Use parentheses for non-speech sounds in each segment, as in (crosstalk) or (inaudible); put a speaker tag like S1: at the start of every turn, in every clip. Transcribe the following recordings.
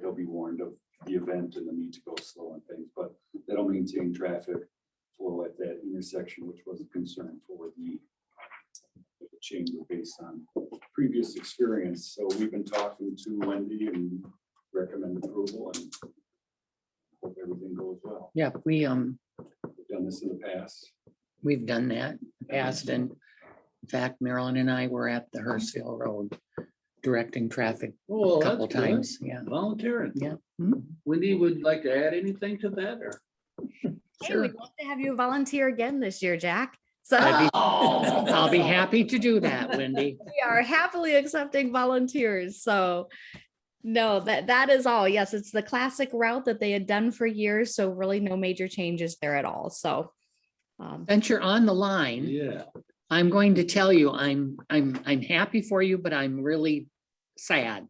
S1: they'll be warned of the event and the need to go slow on things, but that'll maintain traffic flow at that intersection, which was a concern for the the chamber based on previous experience. So we've been talking to Wendy and recommend approval and hope everything goes well.
S2: Yeah, we, um,
S1: We've done this in the past.
S2: we've done that in the past and in fact, Marilyn and I were at the Hurstville Road directing traffic a
S3: Oh,
S2: couple
S3: that's good. Hmm.
S2: times, yeah.
S3: Volunteering.
S2: Yeah.
S3: Wendy, would you like to add anything to that or?
S4: Hey, we'd love to have you volunteer again this year, Jack. So
S2: I'd
S3: (laughs)
S2: be-
S3: I'll
S2: I'll be happy to do that, Wendy.
S4: (laughs) we are happily accepting volunteers. So no, that that is all. Yes, it's the classic route that they had done for years. So really no major changes there at all. So um,
S2: Since you're on the line,
S3: Yeah,
S2: I'm going to tell you, I'm, I'm, I'm happy for you, but I'm really sad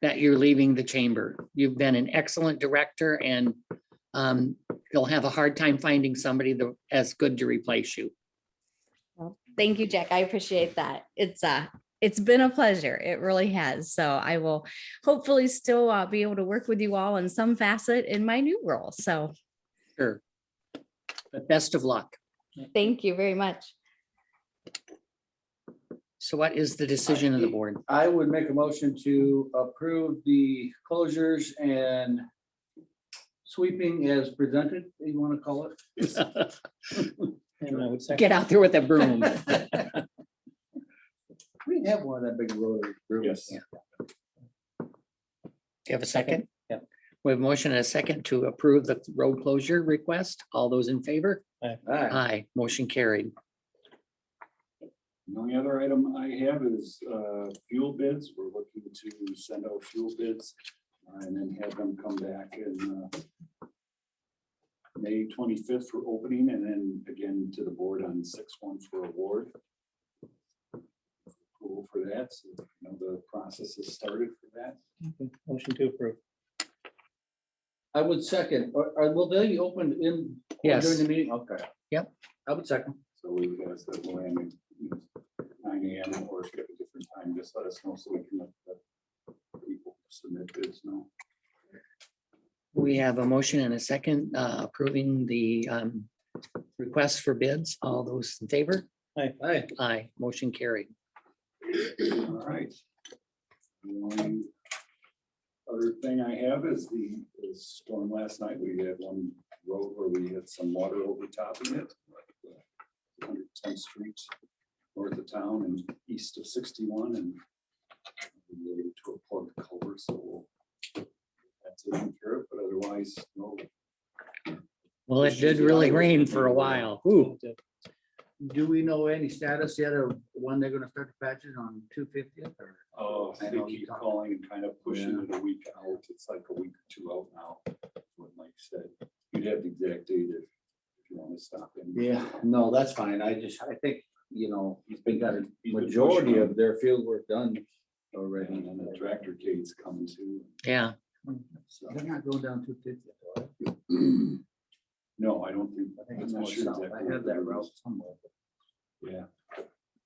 S2: that you're leaving the chamber. You've been an excellent director and um, you'll have a hard time finding somebody that as good to replace you.
S4: thank you, Jack. I appreciate that. It's uh it's been a pleasure. It really has. So I will hopefully still uh, be able to work with you all in some facet in my new role. So
S2: Sure. But best of luck.
S4: thank you very much.
S2: So what is the decision of the board?
S3: I would make a motion to approve the closures and sweeping as presented, you want to call it?
S2: Get out there with a broom.
S3: We didn't have one of that big road.
S1: Yes.
S2: Do you have a second?
S5: Yep.
S2: We have a motion and a second to approve the road closure request. All those in favor?
S3: Alright,
S2: Aye, motion carried.
S1: The only other item I have is uh, fuel bids. We're looking to send out fuel bids uh, and then have them come back in uh, May twenty-fifth for opening and then again to the board on six one for award. Approval for that, so you know, the process has started for that.
S5: Motion to approve.
S3: I would second, or, or will they open in? During
S2: Yes,
S3: the meeting, okay.
S2: Yep.
S3: I would second.
S1: So we would ask that Luann, you know, nine AM or if you have a different time, just let us know so we can let the people submit bids know.
S2: we have a motion and a second uh, approving the um, request for bids. All those in favor?
S3: Aye.
S2: Aye, motion carried.
S1: All right. One Other thing I have is the the storm last night. We had one road where we had some water overtopping it. uh, Hundred tenth street north of town and east of sixty-one and we made it to a plug culvert, so we'll that's taken care of, but otherwise, no.
S2: Well, it did really rain for a while. Ooh,
S3: Do we know any status yet of when they're gonna start the patches on two fiftieth or?
S1: Oh,
S3: I
S1: I
S3: know
S1: know,
S3: you
S1: keep
S3: talked-
S1: calling and kind of pushing
S3: Yeah.
S1: it a week out, it's like a week or two out now, what Mike said, you'd have the exact date if if you want to stop him.
S3: Yeah, no, that's fine. I just, I think, you know, he's been got a
S1: He's been
S3: majority
S1: pushing
S3: of their field work done already.
S1: And then the tractor gate's coming too,
S2: yeah,
S1: so,
S3: Hmm, They're not going down two fifty.
S1: (clears throat) no, I don't think.
S3: I think
S1: I'm
S3: it's
S1: not
S3: more
S1: sure
S3: south.
S1: exactly
S3: I
S1: where
S3: have that
S1: it
S3: route
S1: is.
S3: somewhere.
S1: Yeah,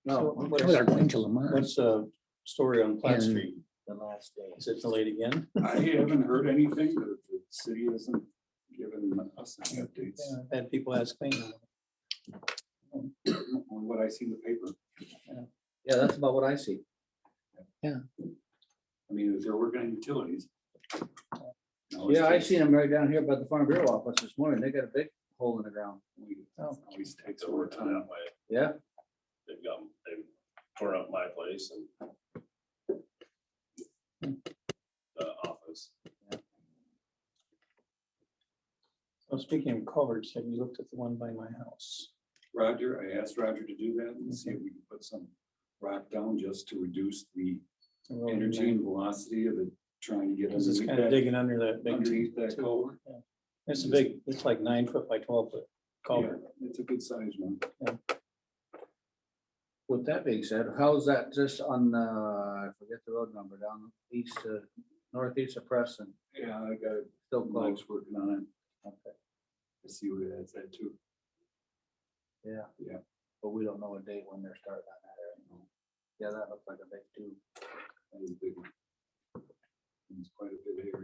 S3: No.
S5: So,
S2: we are going to Lamar.
S5: What's the story on Platt
S2: And-
S5: Street?
S3: The last day.
S5: Is it delayed again?
S1: I haven't heard anything, the, the city hasn't given us any updates
S5: I've Had people ask me.
S1: on what I see in the paper.
S3: Yeah, that's about what I see.
S1: I mean, if they're working on utilities. No, it's
S3: Yeah, Oh, I
S1: just-
S3: seen them right down here by the Farm Bureau office this morning. They got a big hole in the ground.
S1: we- Always takes over time.
S3: Yeah.
S6: they've got, they've torn up my place and the office.
S5: Well, speaking of culverts, have you looked at the one by my house?
S1: Roger, I asked Roger to do that and see if we can put some rock down just to reduce the
S5: The road in there?
S1: energy and velocity of it, trying to get.
S5: It's just kind of
S1: underneath
S5: digging under that
S1: that-
S5: big,
S1: Underneath that culvert.
S5: it's a big, it's like nine foot by twelve foot culvert.
S1: Yeah, It's a good size one.
S3: With that being said, how's that just on, uh, I forget the road number down east, uh, northeast of Preston,
S1: Yeah, I got it.
S3: still closed?
S1: Mike's working on it.
S3: Okay,
S1: I see where that's at too.
S3: Yeah.
S1: Yeah.
S3: But we don't know a date when they're starting on that. right? Yeah, that looks like a big two.
S1: That is a big one. It's quite a bit here.